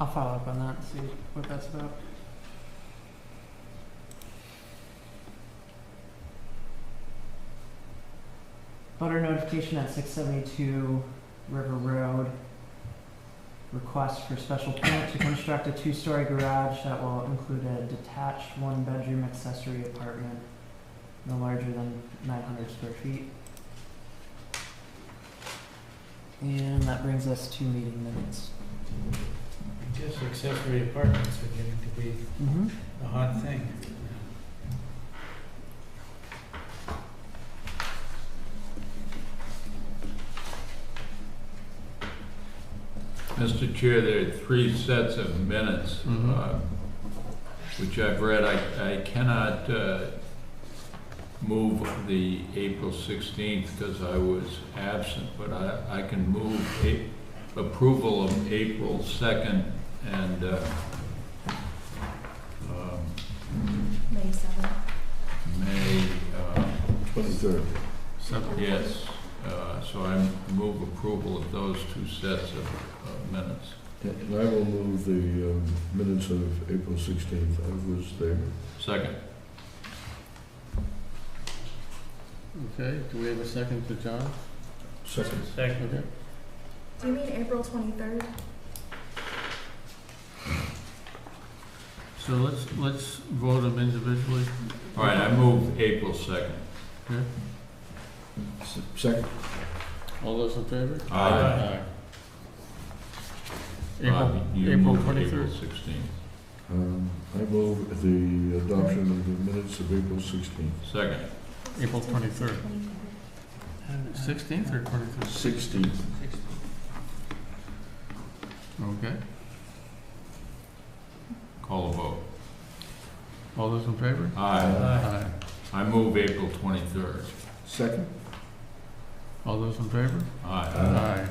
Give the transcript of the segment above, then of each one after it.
I'll follow up on that and see what that's about. Voter notification at six seventy-two River Road. Request for special permit to construct a two-story garage that will include a detached one-bedroom accessory apartment no larger than nine hundred square feet. And that brings us to meeting minutes. Just accessory apartments are getting to be Mm-hmm. a hot thing. Mr. Chair, there are three sets of minutes, Mhm. uh, which I've read. I, I cannot uh, move the April 16th because I was absent, but I, I can move a- approval of April 2nd and uh, um, May seventh. May, uh, Twenty-third. yes. Uh, So I move approval of those two sets of of minutes. And I will move the um, minutes of April sixteenth. I was there. Second. Okay, do we have a second to John? Second. Second. Okay. Do you mean April twenty-third? So let's, let's vote them individually. All right, I move April 2nd. S- Second. All those in favor? Aye. April, Bob, you April move April twenty-third. 16th. Um, I move the adoption of the minutes of April sixteenth. Second. April 23rd. Sixteenth or twenty-third? Sixteenth. Okay, Call a vote. all those in favor? Aye. Aye. I move April 23rd. Second. All those in favor? Aye.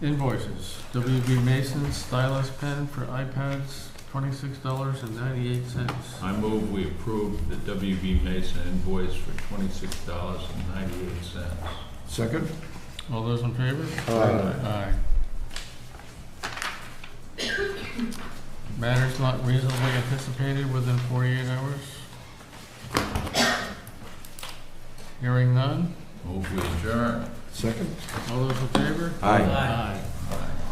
Invoices, WB Mason stylus pen for iPads, twenty-six dollars and ninety-eight cents. I move we approve the WB Mason invoice for $26.98. Second. All those in favor? Aye. Aye. Matters not reasonably anticipated within forty-eight hours? Hearing none, Move we adjourn. Second. all those in favor? Aye. Aye.